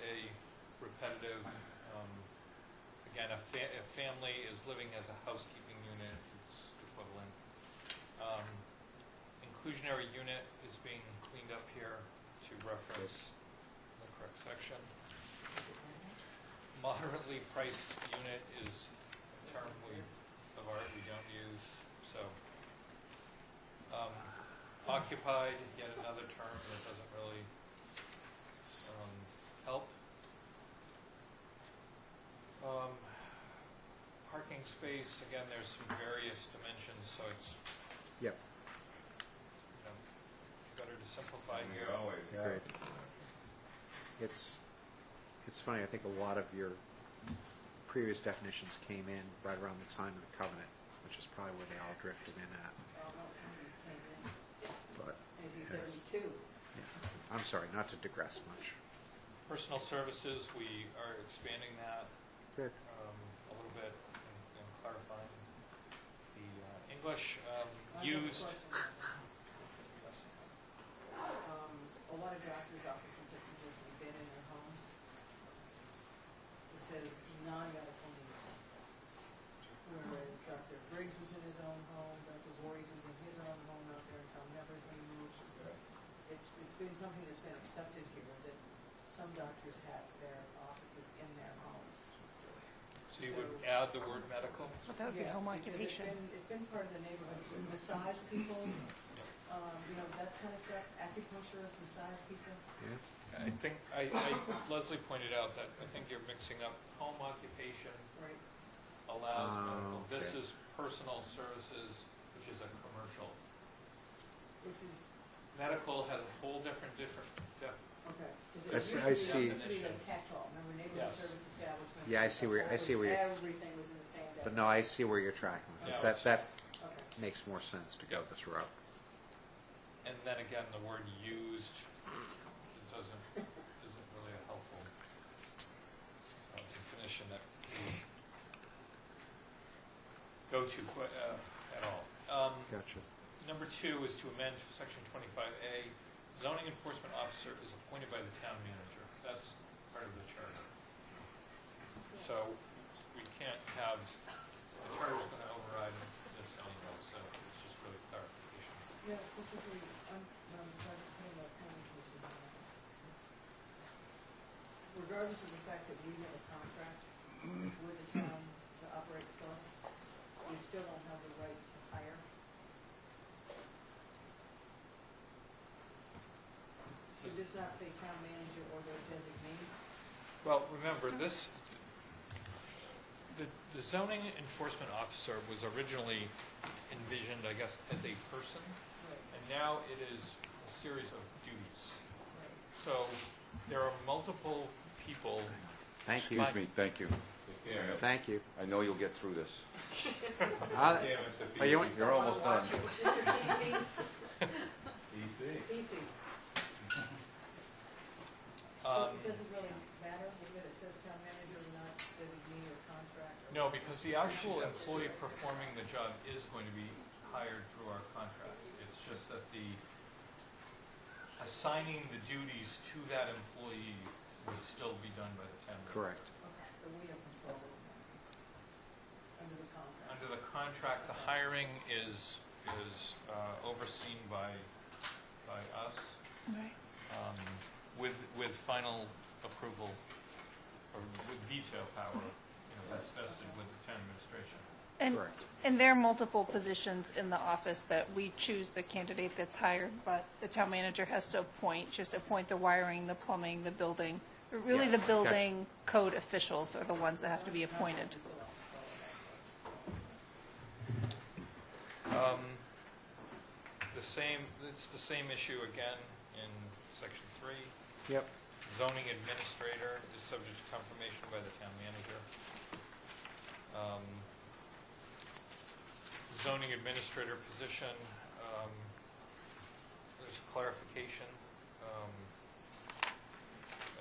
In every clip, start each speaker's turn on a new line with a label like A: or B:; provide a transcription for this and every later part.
A: and um, a fa- a family is living as a housekeeping unit, it's equivalent. Um, Inclusionary unit is being cleaned up here to reference the correct section. Moderately priced unit is a term we, of art we don't use, so. um, Occupied, yet another term that doesn't really um, help. Um, Parking space, again, there's some various dimensions, so it's,
B: Yep,
A: you know, better to simplify
C: We
A: here.
C: always.
B: great. It's, it's funny, I think a lot of your previous definitions came in right around the time of the covenant, which is probably where they all drifted in at, but, yes.
D: 1972.
B: yeah. I'm sorry, not to digress much.
A: Personal services, we are expanding that
B: Good.
A: um, a little bit and- and clarifying the uh, English um, used.
D: Um, A lot of doctors' offices have just been in their homes. It says non-medical use. Whereas Dr. Briggs was in his own home, Dr. Voorhees was in his own home out there until Nevers when he moved. It's, it's been something that's been accepted here, that some doctors have their offices in their homes.
A: So you would add the word medical?
E: Well, that would be
D: Yes,
E: home
D: because it's
E: occupation.
D: been- It's been part of the neighborhood, massage people, um, you know, that kind of stuff, acupuncturist, massage people.
B: Yeah,
A: I think, I, I- Leslie pointed out that I think you're mixing up home occupation
D: Right.
A: allows
B: Ah,
A: medical. This is
B: okay.
A: personal services, which is a commercial.
D: Which is,
A: Medical has a whole different, different, def-
D: okay. 'cause it
B: I see- I
D: used to be-
B: see.
D: It used to be a catch-all, remember neighborhood
A: Yes.
D: service establishment.
B: Yeah, I see where- I see where you're-
D: Everything was in the same day.
B: but no, I see where you're tracking with this,
A: Yeah.
B: that, that
D: Okay.
B: makes more sense to go this route.
A: and then again, the word used it doesn't, isn't really a helpful uh, definition that we go to qui- uh, at all. Um,
B: Gotcha.
A: Number two is to amend section 25A, zoning enforcement officer is appointed by the town manager. That's part of the charter. So we can't have, the charter's going to override this anyway, so it's just really clarification.
D: Yeah, this would be, I'm, I'm trying to put in a county commission. on that. Regardless of the fact that we have a contract with the town to operate plus, we still don't have the right to hire. Should this not say town manager or their designee?
A: Well, remember, this, the the zoning enforcement officer was originally envisioned, I guess, as a person,
D: Right,
A: and now it is a series of duties.
D: right.
A: So there are multiple people.
B: Thank you.
F: Excuse me, thank you.
C: Yeah,
B: Thank you.
F: I know you'll get throrough this.
B: Uh,
C: Yeah, Mr.
B: Are you-
C: P-
F: You're almost
D: Wanna
F: done.
D: watch it. Mr.
C: PC.
D: Easy, easy. So
A: Um,
D: it doesn't really matter whether it says town manager or not, designee or contract? or-
A: No, because the actual employee performing the job is going to be hired through our contract. It's just that the, assigning the duties to that employee would still be done by the town. manager.
B: correct.
D: Okay, so we have control over that. Under the contract.
A: Under the contract, the hiring is, is uh, overseen by, by us
E: Right.
A: um, with, with final approval or with veto power, you know, that's vested with the town administration.
E: And,
B: Correct.
E: and there are multiple positions in the office that we choose the candidate that's hired, but the town manager has to appoint, just appoint the wiring, the plumbing, the building. Really,
B: Yeah,
E: the
B: gotcha.
E: building code officials are the ones that have to be appointed.
D: So I'll spell it
A: Um, The same, it's the same issue again in section three.
B: Yep.
A: Zoning administrator is subject to confirmation by the town manager. Um, Zoning administrator position, um, there's clarification. Um,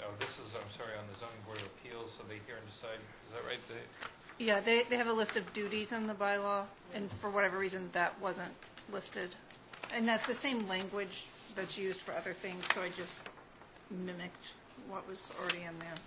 A: Oh, this is, I'm sorry, on the zoning board of appeals, so they hear and decide, is that right? They-
E: Yeah, they, they have a list of duties in the bylaw, and for whatever reason, that wasn't listed. And that's the same language that's used for other things, so I just mimicked what was already in there.